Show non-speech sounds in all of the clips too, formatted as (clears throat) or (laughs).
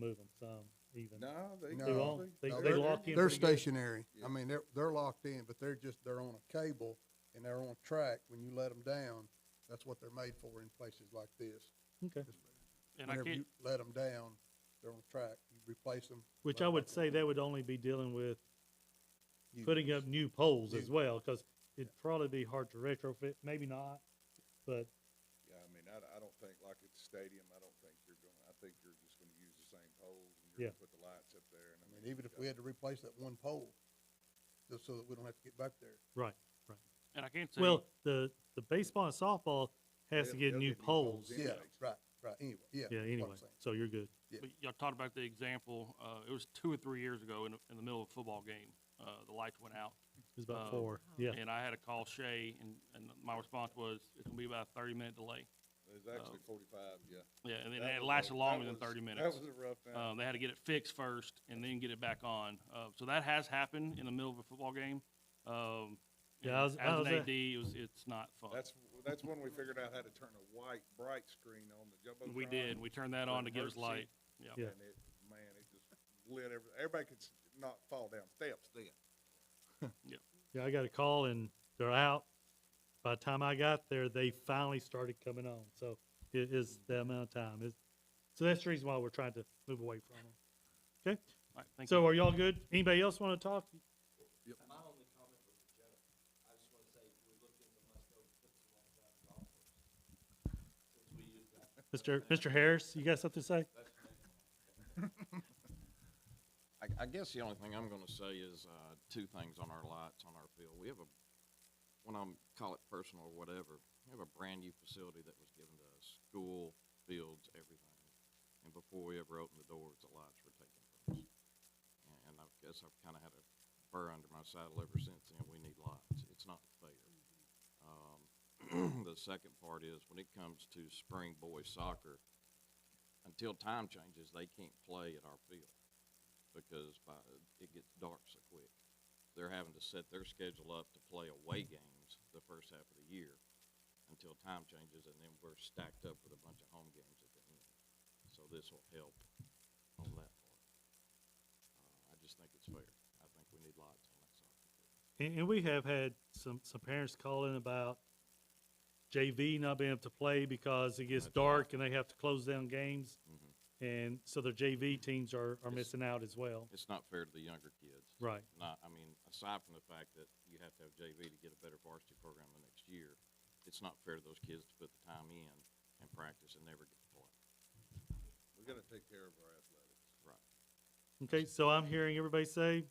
move them some even. No, they. They won't, probably- they, they're- they lock in. They're pretty good. stationary. Yeah. I mean, they're, they're locked in, but they're just, they're on a cable and they're on a track. When you let them down, that's what they're made for in places like this. Okay, And I Whenever you can't, let them down, they're on a track, you replace them. which let I 'em would back say on. that would only be dealing with You- putting up new poles as New. well, cause it'd probably be hard to retrofit, maybe not, but Yeah, I mean, I, I don't think, like at the stadium, I don't think you're gonna, I think you're just gonna use the same poles and Yeah. you're gonna put the lights up there and I I mean. mean, even if we had to replace that one pole, just so that we don't have to get back there. right. and I can't say, Well, the, the baseball and softball has to They'll- get they'll new get new poles. poles in. Yeah, Anyway. right, right, anyway, yeah. Yeah, that's what I'm anyway, saying. so you're good. but y'all talked about the example, uh, it was two or three years ago in, the- in the middle of a football game. Uh, the lights went out It's about Uh, four, yeah. and I had to call Shay and, and my response was, it's gonna be about a thirty minute delay. There's actually forty-five, yeah. Yeah, Oh. and then That was a- it lasted that longer than was- thirty minutes. That was a rough night. Um, they had to get it fixed first and then get it back on. Uh, so that has happened in the middle of a football game. Um, Yeah, I was- and I was as an at- AD, it was, it's not fun. That's, that's when we figured out how to turn a white, bright screen on the Jumbotron. we did. We turned that for on to give us emergency. light. Yeah. Yeah. And it, man, it just lit every, everybody could s- not fall down steps then. Yeah, I got a call and they're out. By the time I got there, they finally started coming on, so it is the amount of time. It's, so that's the reason why we're trying to move away from them. Okay, All right, thank you. so are y'all good? Anybody else want to talk? My only comment was for Jenna. I just want to say, we looked into Musto, put some lights out at golf course. Since we used that, Mr. Mr. Harris, you got something to say? I, I guess the only thing I'm gonna say is, uh, two things on our lights on our field. We have a, when I'm, call it personal or whatever, we have a brand-new facility that was given to us, school, fields, everything. And before we ever opened the doors, the lights were taken from us. And- And I guess I've kinda had a burr under my saddle ever since then. We need lights. It's not fair. Um, (clears throat) the second part is, when it comes to spring boys soccer, until time changes, they can't play at our field because by, it gets dark so quick. They're having to set their schedule up to play away games the first half of the year until time changes, and then we're stacked up with a bunch of home games at the end. So this will help on that part. Uh, I just think it's fair. I think we need lots on that soccer field. And, and we have had some, some parents calling about JV not being able to play because it gets That's right. Mm-hmm. dark and they have to close down games. And so their JV teams are, are Yes. missing out as well. It's not fair to the younger kids. Right. Not, I mean, aside from the fact that you have to have JV to get a better varsity program the next year, it's not fair to those kids to put the time in and practice and never get to play. We gotta take care of our athletics. Right. Okay, so I'm hearing everybody say,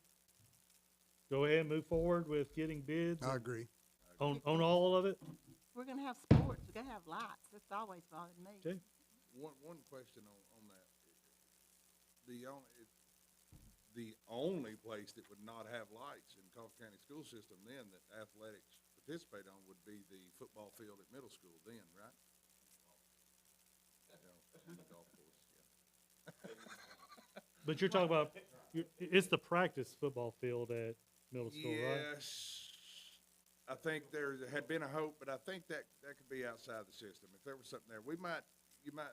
go ahead and move forward with getting bids I agree. on, on all of it? We're gonna have sports, we're gonna have lights, that's always bothered me. Okay. One, one question on, on that. The only, it- the only place that would not have lights in Coffee County School System then that athletics participate on would be the football field at middle school then, right? Yeah, and the golf course, yeah. But you're talking about, you're, it's the practice football field at middle school, right? Yes, I think there had been a hope, but I think that, that could be outside the system. If there was something there, we might, you might,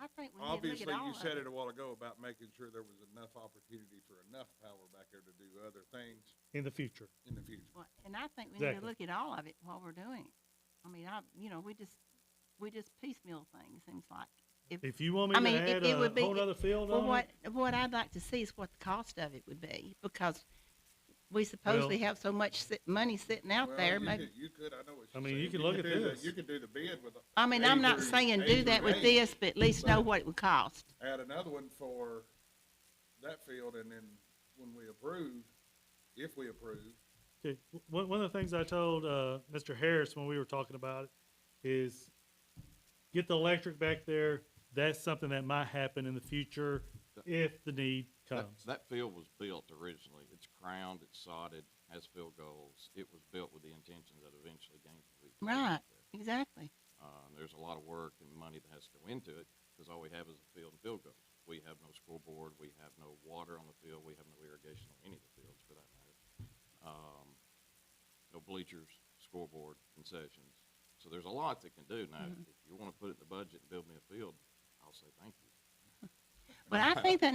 I think we need to look at Obviously, all you of said it it. a while ago about making sure there was enough opportunity for enough power back there to do other things In the future. in the future. Well, And I think we need to Exactly. look at all of it while we're doing it. I mean, I, you know, we just, we just piecemeal things, seems like. If you want I me mean, to it- add it a would be- whole other field Well, on it, what, what I'd like to see is what the cost of it would be, because we supposedly have so much sit- money sitting out Well, there, you (laughs) maybe. could- You could, I know what I you're mean, you saying. could look at do the- this. You could do the bid with. a- I mean, I'm A not through- saying A do through that with eight. this, but at least know Right. what it would cost. Add another one for that field and then when we approve, if we approve, Okay, w- One, one of the things I told, uh, Mr. Harris when we were talking about it is get the electric back there. That's something that might happen in the future if the need That, comes. that field was built originally. It's crowned, it's sodded, has field goals. It was built with the intention that eventually games will be. played Right, there. exactly. Uh, and there's a lot of work and money that has to go into it, because all we have is a field and field goals. We have no scoreboard, we have no water on the field, we have no irrigation on any of the fields for that matter. Um, no bleachers, scoreboard, concessions. So there's a lot that can do. Now, if you wanna put it in the budget and build me a field, I'll say thank you. (laughs) Well, I think that